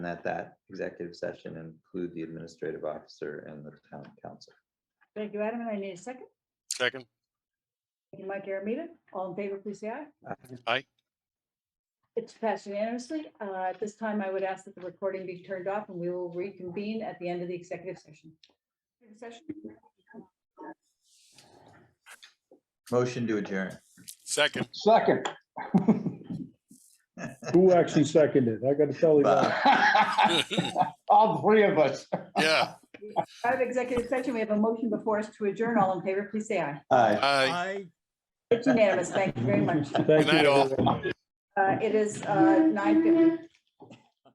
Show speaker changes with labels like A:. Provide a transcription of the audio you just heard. A: And at that executive session include the administrative officer and the town council.
B: Thank you, Adam, and I need a second.
C: Second,
B: Thank you, Mike Aramita. All in favor, please say aye.
C: Aye.
B: It's passed unanimously. Uh, At this time, I would ask that the recording be turned off and we will reconvene at the end of the executive session. Executive session.
A: Motion to adjourn.
C: second.
D: Second.
E: Who actually seconded? I gotta tell you that.
D: All three of us.
C: Yeah,
B: Out of executive session, we have a motion before us to adjourn. All in favor, please say aye.
D: Aye.
C: aye.
B: It's unanimous. Thank you very much.
E: Thank you,
C: night, all.
E: everyone.
B: Uh, It is nine fifty.